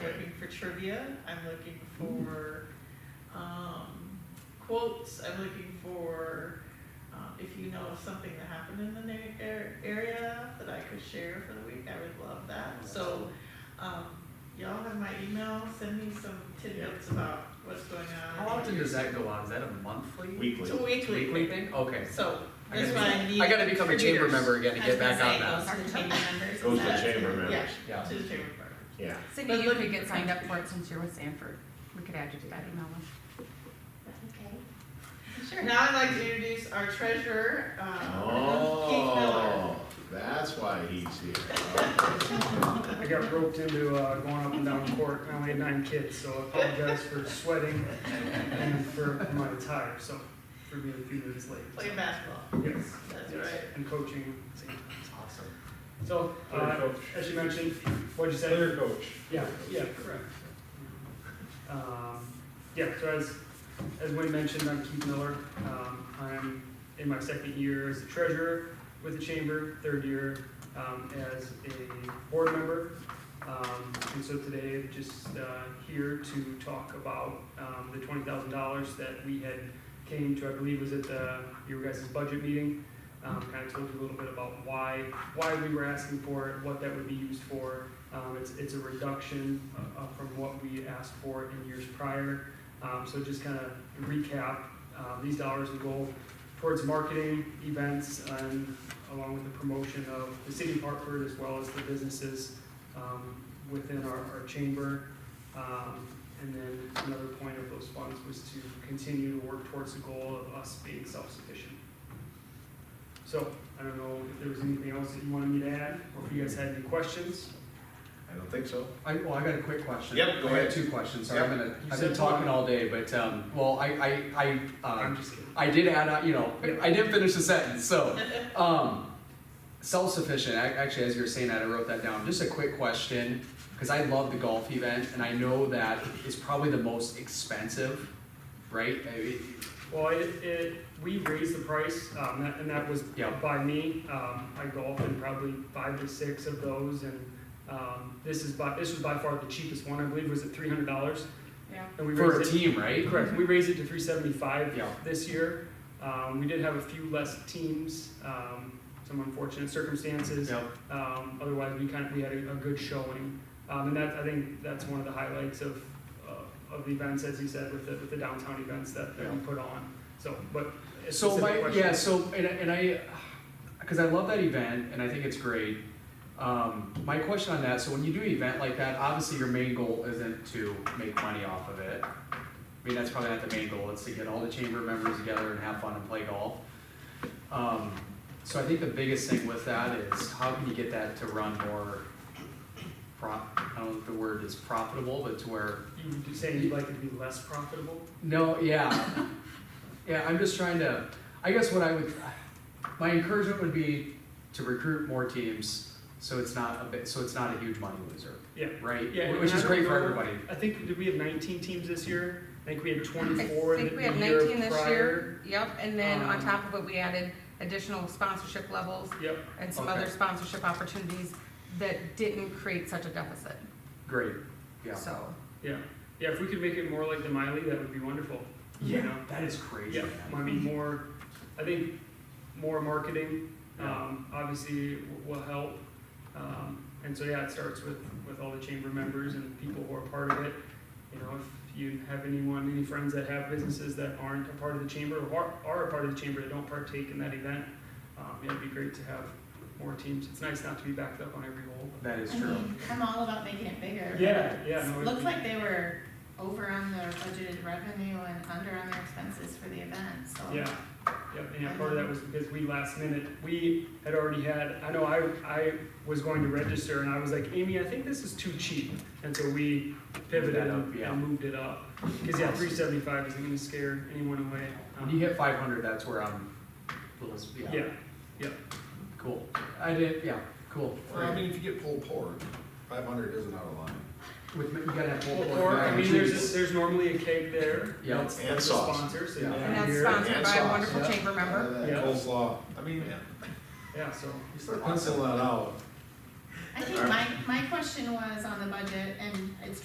trivia, I'm looking for, um, quotes, I'm looking for, uh, if you know of something that happened in the na- ar- area that I could share for the week, I would love that, so, um, y'all have my email, send me some tidbits about what's going on. How often does that go on? Is that a monthly? It's Weekly. a weekly. Weekly thing? Okay. So, I that's gotta why I be- need. I gotta become a chamber contributors. member again to I was get back gonna on say, that. Goes to the chamber Goes members. to the is that- chamber Yeah, membber, Yeah. to the chamber member. yeah. Cindy, But you look- could get signed up for it since you're with Sanford. We could add you to that email list. Okay. Sure. Now I'd like to introduce our treasurer, uh, Keith Miller. Oh, that's why he's here. I got roped into uh, going up and down court, and I only had nine kids, so I apologize for sweating and for my attire, so for being a few minutes late. so, Playing basketball, Yes. that's yes, right. And coaching at the same time. That's awesome. So, Player uh, coach. as you mentioned, what'd you say? Player coach. Yeah, yeah, correct. Um, yeah, so as, as Wayne mentioned, I'm Keith Miller. Um, I'm in my second year as a treasurer with the chamber, third year, um, as a board member. Um, and so today, I'm just, uh, here to talk about, um, the twenty thousand dollars that we had came to, I believe was at the, your guys' budget meeting. Um, kind of told you a little bit about why, why we were asking for it, what that would be used for, um, it's, it's a reduction uh, uh, from what we asked for in years prior. Um, so just kind of recap, uh, these dollars will go towards marketing, events, and along with the promotion of the city of Hartford as well as the businesses, um, within our, our chamber. Um, and then another point of those funds was to continue to work towards the goal of us being self-sufficient. So, I don't know if there was anything else that you wanted me to add, or if you guys had any questions? I don't think so. I, well, I got a quick question. Yep, go I ahead. got two questions, sorry, Yep. I'm gonna, You I've said been talking all day, but, um, well, I, I, I, I'm um, just kidding. I did add, on- you know, I didn't finish the sentence, so, um, self-sufficient, ac- actually, as you were saying that, I wrote that down, just a quick question, cause I love the golf event, and I know that it's probably the most expensive, right? I mean, Well, it, it, we raised the price, um, that- and that was Yeah. by me. Um, I golfed in probably five to six of those, and, um, this is by, this was by far the cheapest one, I believe, was at three hundred dollars? Yeah. And we For a raised it, team, right? correct, we raised it to three seventy-five Yeah. this year. Um, we did have a few less teams, um, some unfortunate circumstances. Yep. Um, otherwise, we kind of, we had a, a good showing, um, and that, I think that's one of the highlights of, uh, of the events, as you said, with the, with the downtown events that, that we Yeah. put on, so, but. a So specific my, question. yeah, so, and, I- and I, cause I love that event and I think it's great. Um, my question on that, so when you do an event like that, obviously your main goal isn't to make money off of it. I mean, that's probably not the main goal, it's to get all the chamber members together and have fun and play golf. Um, so I think the biggest thing with that is how can you get that to run more prop, I don't know if the word is profitable, but to where You saying you'd like it to be less profitable? no, yeah. Yeah, I'm just trying to, I guess what I would, my encouragement would be to recruit more teams, so it's not a bit, so it's not a huge money loser, Yeah. right? Yeah, Which and is I great for don't know- everybody. I think, did we have nineteen teams this year? I think we had I twenty-four in think the the we year had prior. nineteen this year, yep, and then on Um, top of it, we added additional sponsorship levels Yep, and some Okay. other sponsorship opportunities that didn't create such a deficit, Great, yeah. so. yeah, yeah, if we could make it more like the Miley, that would be wonderful, you know? Yeah, that is crazy, Yeah, man. might be more, I think, more marketing, um, obviously w- will help. Um, and so, yeah, it starts with, with all the chamber members and people who are part of it. You know, if you have anyone, any friends that have businesses that aren't a part of the chamber or are, are a part of the chamber that don't partake in that event, um, yeah, it'd be great to have more teams. It's nice not to be backed up on every hole. That is I true. Uh-huh. mean, I'm all about making it bigger. Yeah, yeah. no, it'd Looks be- like they were over on their budgeted revenue and under on their expenses for the event, so. Yeah, yep, and yeah, part of that was because we last minute, we had already had, I know I, I was going to register and I was like, Amy, I think this is too cheap. And so we Moved pivoted that up, and yeah. and moved it up, cause yeah, three seventy-five isn't gonna scare anyone away. Um, When you hit five hundred, that's where I'm, a little Yeah, yeah, cool. I did, yeah, cool. Well, I mean, if you get pulled pork, five hundred isn't out of line. With, you gotta have full. or, I mean, there's, there's normally a cake there. Yeah. That's- And that's a sauce. Sponsor, so. Yeah. you And can that's hear- sponsored and by a sauce, wonderful yeah. chamber member, Uh, that Yeah. Coleslaw, I mean, Yeah, so, you start penciling that out. I think my, my question was on the budget, and it's